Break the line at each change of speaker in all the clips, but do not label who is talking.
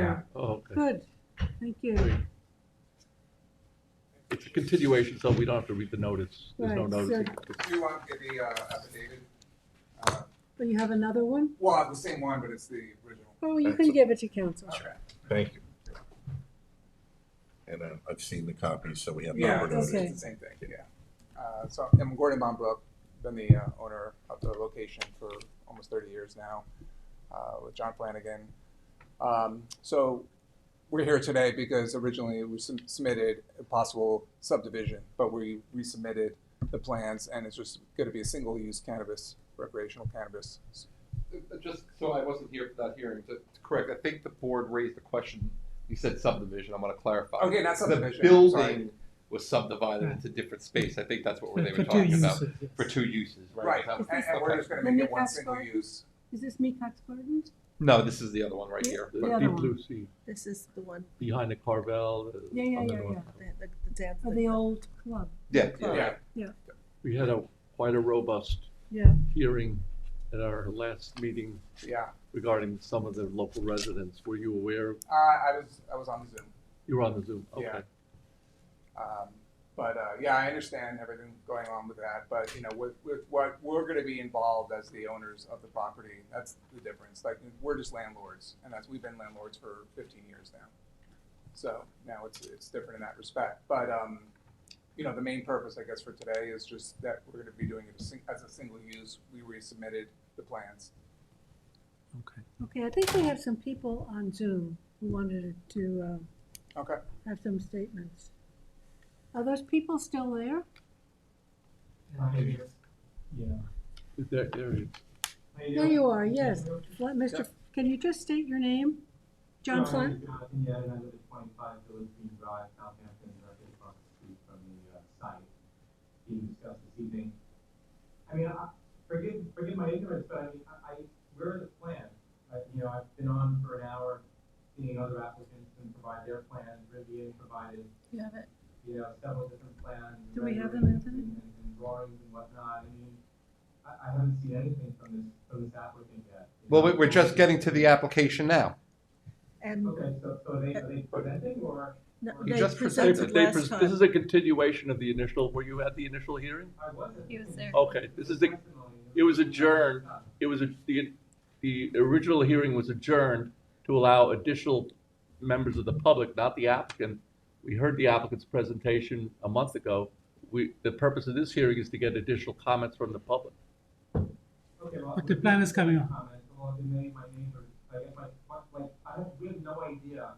there.
Oh, okay.
Good, thank you.
It's a continuation, so we don't have to read the notice. There's no
Right, so-
notice.
Do you want to get the uh, affidavit? Uh,
But you have another one?
Well, I have the same one, but it's the original.
Oh, you can give it to council.
Okay.
Thank you. And uh, I've seen the copies, so we have
Yeah,
number
it's
notice.
Okay.
it's the same thing, yeah. Uh, So I'm Gordon Bombrook, been the uh, owner of the location for almost 30 years now uh, with John Flanagan. Um, So we're here today because originally we sub- submitted a possible subdivision, but we resubmitted the plans and it's just going to be a single-use cannabis, recreational cannabis.
Uh, Just so I wasn't here for that hearing, to to correct, I think the board raised the question, you said subdivision, I'm gonna clarify.
Okay, not
The
subdivision, sorry.
building was subdivided into different space, I think that's what they were talking about, for two uses,
Right,
right? Is
and
that-
and we're
okay.
just going to
Let
make
me
it one
ask
single
Gordon.
use.
Is this Mecca's Gardens?
No, this is the other one right here.
The
The
other
deep
one.
blue sea
This is the one,
behind the Carvel. uh,
Yeah, yeah,
on the
yeah,
north.
the, the, the dance.
Or the old club?
Yeah, yeah,
Yeah,
We had a, quite a robust
Yeah.
hearing at our last meeting
yeah.
regarding some of the local residents. Were you aware?
Uh, I was, I was on Zoom.
You were on the Zoom,
Yeah.
okay.
Um, but uh, yeah, I understand everything going on with that. But you know, with, with what we're going to be involved as the owners of the property, that's the difference. Like we're just landlords, and that's we've been landlords for 15 years now. So now it's it's different in that respect. But um, you know, the main purpose, I guess, for today is just that we're going to be doing it as sing- as a single use. We resubmitted the plans.
Okay, I think we have some people on Zoom who wanted to uh,
Okay.
have some statements. Are those people still there?
Yeah.
There, there it is.
There you are, yes. Fla- Mr., can you just state your name?
Um,
John Flynn?
Yeah, I live at twenty-five Village Green Drive, Southampton, directly across the street from the uh, site being discussed this evening. I mean, I, forgive, forgive my ignorance, but I mean, I, I, where are the plans? I, you know, I've been on for an hour, seeing other applicants and provide their plans, Rivian provided,
You have it?
you know, several different plans. and
Do we have them,
renderings
Anthony?
And, and drawings and whatnot, I mean, I, I haven't seen anything from this, from this applicant yet. you
Well, we-
know?
we're just getting to the application now.
And
Okay, so, so are they, are they presenting or
no,
You
they
just
They-
presented
they pres-
last
This
time.
is a continuation of the initial, were you at the initial hearing?
I wasn't?
He was there.
Okay, this is the, it was adjourned. it was, a- the, the original hearing was adjourned to allow additional members of the public, not the applicant. We heard the applicant's presentation a month ago. We, the purpose of this hearing is to get additional comments from the public.
But the plan is coming up. Well, the name, my neighbors, I guess my, my- like, I have, we have no idea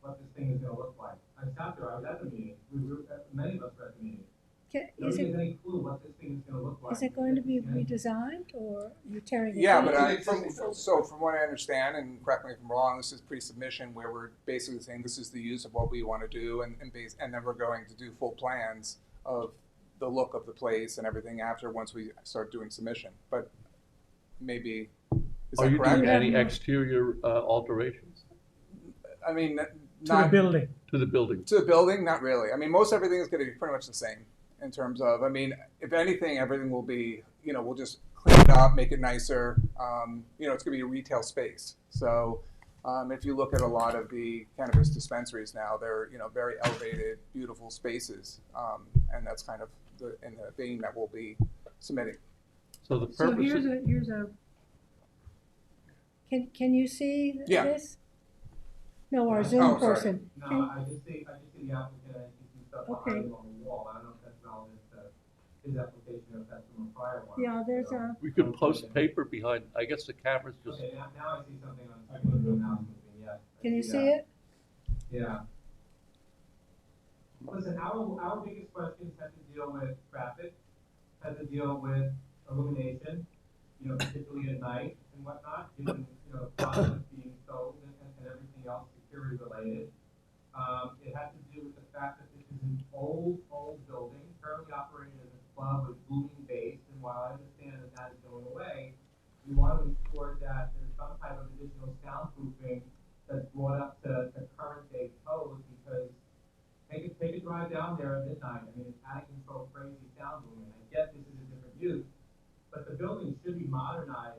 what this thing is gonna look like. I sat there, I was at the meeting, we were, many of us were at the meeting.
Ca- Is
Nobody
it,
has any clue what this thing is gonna look like.
is it going to be
And-
redesigned or you're tearing it
Yeah,
down?
but
Yeah,
I,
it's
from,
existing.
so from what I understand, and correct me if I'm wrong, this is pre-submission where we're basically saying this is the use of what we want to do and, and base, and then we're going to do full plans of the look of the place and everything after, once we start doing submission, but maybe, is
Are
that
you doing
Yeah.
correct?
any exterior uh, alterations
I mean, n-
to the
not,
building.
to the building?
to the building, not really. I mean, most everything is going to be pretty much the same in terms of, I mean, if anything, everything will be, you know, we'll just clean it up, make it nicer. Um, you know, it's going to be a retail space. So um, if you look at a lot of the cannabis dispensaries now, they're, you know, very elevated, beautiful spaces. Um, and that's kind of the, in the vein that we'll be submitting.
So the
So
purpose,
here's
of-
a, here's a, can, can you see th-
Yeah.
this? No, our
Oh,
Zoom
sorry.
person.
No,
Can-
I just see, I just see the applicant, I see some stuff
Okay.
behind him on the wall, I don't know if that's relevant to his application or if that's from a prior one.
Yeah, there's
So-
a,
we could post paper behind, I guess the camera's just,
Okay, now, now I see something on, I can go now, yes. I
can you
that.
see it?
Yeah. Listen, our, our biggest questions had to deal with traffic, had to deal with illumination, you know, particularly at night and whatnot, given, you know, products being sold and, and- and everything else security related. Um, it had to do with the fact that this is an old, old building, currently operating as a club with booming bass, and while I understand that that is going away, we want to ensure that there's some type of additional soundproofing that's brought up to, to current day code because take a, take a drive down there at midnight. I mean, it's out of control, crazy sound boom, and I get this is a different use, but the building should be modernized